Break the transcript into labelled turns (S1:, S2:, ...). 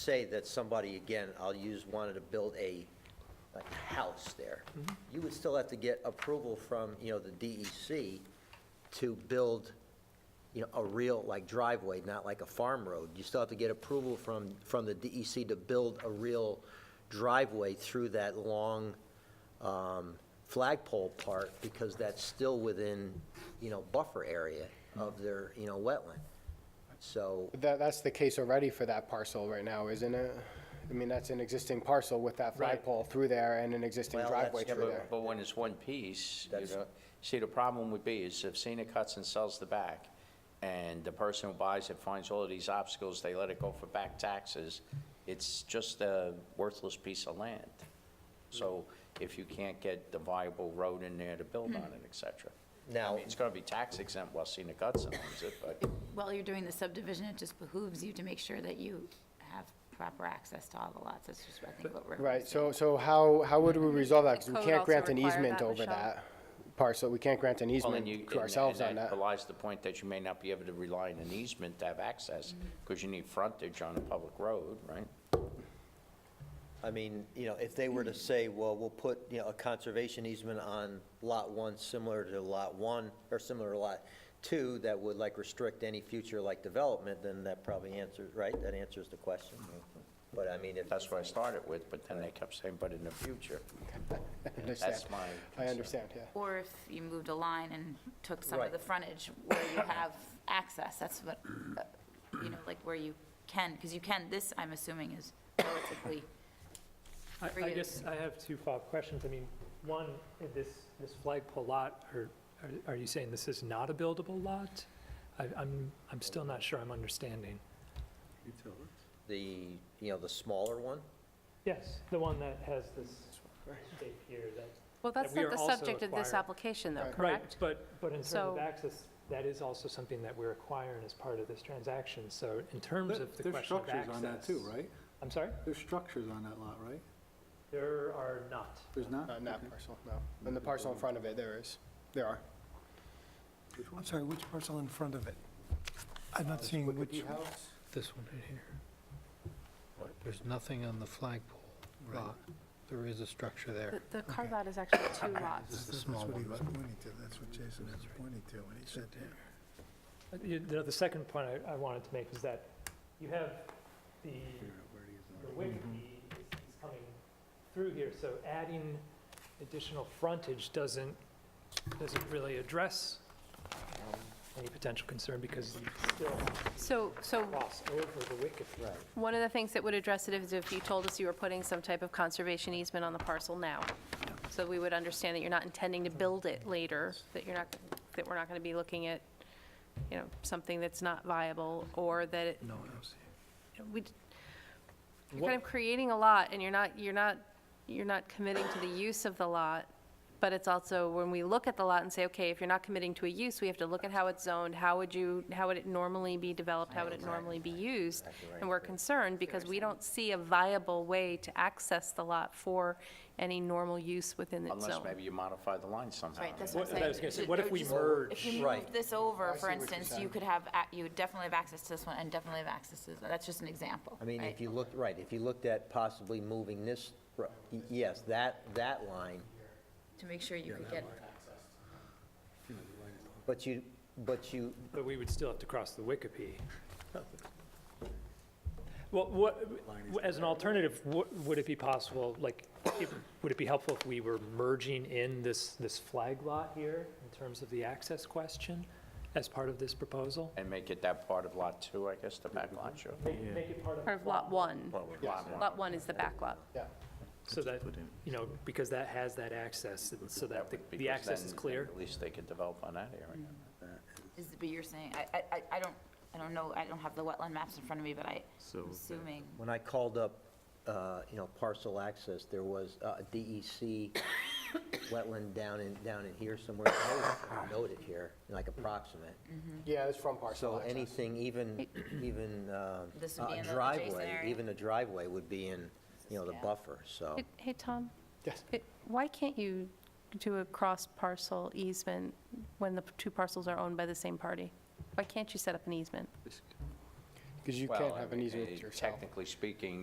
S1: say that somebody, again, I'll use, wanted to build a, like, house there, you would still have to get approval from, you know, the DEC to build, you know, a real, like, driveway, not like a farm road. You still have to get approval from, from the DEC to build a real driveway through that long um, flagpole part, because that's still within, you know, buffer area of their, you know, wetland. So,
S2: That, that's the case already for that parcel right now, isn't it? I mean, that's an existing parcel with that flagpole through there and an existing
S1: Well,
S2: driveway
S1: that's-
S2: through there.
S3: But when it's one piece, you
S1: That's-
S3: know, see, the problem would be is if Cena cuts and sells the back, and the person who buys it finds all of these obstacles, they let it go for back taxes, it's just a worthless piece of land. So if you can't get the viable road in there to build on it, et cetera. I
S1: Now-
S3: mean, it's gonna be tax exempt while Cena cuts and owns it, but.
S4: While you're doing the subdivision, it just behooves you to make sure that you have proper access to all the lots. That's just, I think, what we're.
S2: Right, so, so how, how would we resolve that? Because
S5: Code
S2: we can't
S5: also
S2: grant an
S5: require
S2: easement
S5: that,
S2: over
S5: Michelle?
S2: that parcel. We can't grant an
S3: Well, and you-
S2: easement to
S3: and-
S2: ourselves on
S3: and
S2: that.
S3: belies the point that you may not be able to rely on an easement to have access, because you need frontage on a public road, right?
S1: I mean, you know, if they were to say, well, we'll put, you know, a conservation easement on Lot 1, similar to Lot 1, or similar to Lot 2, that would like restrict any future like development, then that probably answers, right? That answers the question. But I mean, if.
S3: That's what I started with, but then they kept saying, but in the future.
S2: I understand.
S3: That's my
S2: I
S3: concern.
S2: understand, yeah.
S4: Or if you moved a line and took some
S1: Right.
S4: of the frontage where you have access, that's what, uh, you know, like where you can, because you can, this, I'm assuming, is relatively,
S6: I-
S4: for
S6: I
S4: you.
S6: guess I have two follow-up questions. I mean, one, if this, this flagpole lot, are, are- are you saying this is not a buildable lot? I, I'm, I'm still not sure I'm understanding.
S1: The, you know, the smaller one?
S6: Yes, the one that has this shape here that.
S5: Well, that's
S6: we
S5: not
S6: are
S5: the
S6: also
S5: subject of this
S6: acquiring.
S5: application, though,
S6: Right,
S5: correct?
S6: but, but in terms of
S5: So-
S6: access, that is also something that we're acquiring as part of this transaction. So in terms of the question of
S7: There's
S6: access.
S7: structures on that too, right?
S6: I'm sorry?
S7: There's structures on that lot, right?
S6: There are not.
S7: There's not?
S2: Not on that parcel, no. On the parcel in front of it, there is. There are.
S3: Mm-hmm.
S8: I'm sorry, which parcel in front of it? I'm not seeing which,
S9: This one right here. There's nothing on the flagpole lot. There is a structure there.
S5: The- The carve-out is actually two lots.
S9: This is the
S8: that's
S9: small
S8: what he
S9: one.
S8: was pointing to, that's what Jason was pointing to when he said there.
S6: Uh, You know, the second point I, I wanted to make is that you have the, the Whitby is is coming through here, so adding additional frontage doesn't, doesn't really address um, any potential concern because you still
S5: So, so
S6: cross over the Whitby. Right.
S5: one of the things that would address it is if you told us you were putting some type of conservation easement on the parcel now. So we would understand that you're not intending to build it later, that you're not, that we're not going to be looking at, you know, something that's not viable, or that it
S9: No, I don't see it.
S5: we, you're kind of creating a lot, and you're not, you're not, you're not committing to the use of the lot, but it's also, when we look at the lot and say, okay, if you're not committing to a use, we have to look at how it's zoned, how would you, how would it normally be developed, how would it normally be used? And we're concerned, because we don't see a viable way to access the lot for any normal use within its
S3: Unless
S5: zone.
S3: maybe you modify the line somehow.
S4: right, that's
S3: I mean,
S4: what I'm saying.
S6: I was gonna say, what
S4: It would
S6: if we
S4: just- If
S6: merge?
S4: you
S1: Right.
S4: moved this over,
S2: Oh, I see
S4: for
S2: what you're
S4: instance, you
S2: saying.
S4: could have, ac- you would definitely have access to this one and definitely have access to this one. That's just an example.
S1: I mean,
S4: right?
S1: if you looked, right, if you looked at possibly moving this, r- y- yes, that, that line,
S4: To make sure you could get,
S1: but you, but you,
S6: But we would still have to cross the Wikipedia. Well, what, as an alternative, what- would it be possible, like, if- would it be helpful if we were merging in this, this flag lot here in terms of the access question as part of this proposal?
S3: And make it that part of Lot 2, I guess, the back lot, sure.
S6: Make make it part of,
S5: Part of Lot 1.
S3: Lot one.
S5: Lot 1 is the back lot.
S6: so that, you know, because that has that access, and so that the- the
S3: Because
S6: access
S3: then-
S6: is
S3: then
S6: clear.
S3: At least they could develop on that area.
S4: is, but you're saying, I, I- I, I don't, I don't know, I don't have the wetland maps in front of me, but I, I'm assuming,
S1: when I called up, uh, you know, parcel access, there was uh, a DEC wetland down in, down in here somewhere, I was noted here, like approximate.
S2: Yeah, it's from parcel
S1: So
S2: access.
S1: anything, even, even uh,
S4: This would be
S1: a
S4: in the adjacent
S1: driveway,
S4: area.
S1: even a driveway would be in, you know, the
S4: Yeah.
S1: buffer, so.
S5: Hey- Hey, Tom?
S2: Yes.
S5: It- Why can't you do a cross-parcel easement when the two parcels are owned by the same party? Why can't you set up an easement?
S2: because you
S3: Well,
S2: can't
S3: I
S2: have an
S3: mean,
S2: easement
S3: eh,
S2: yourself.
S3: Technically speaking,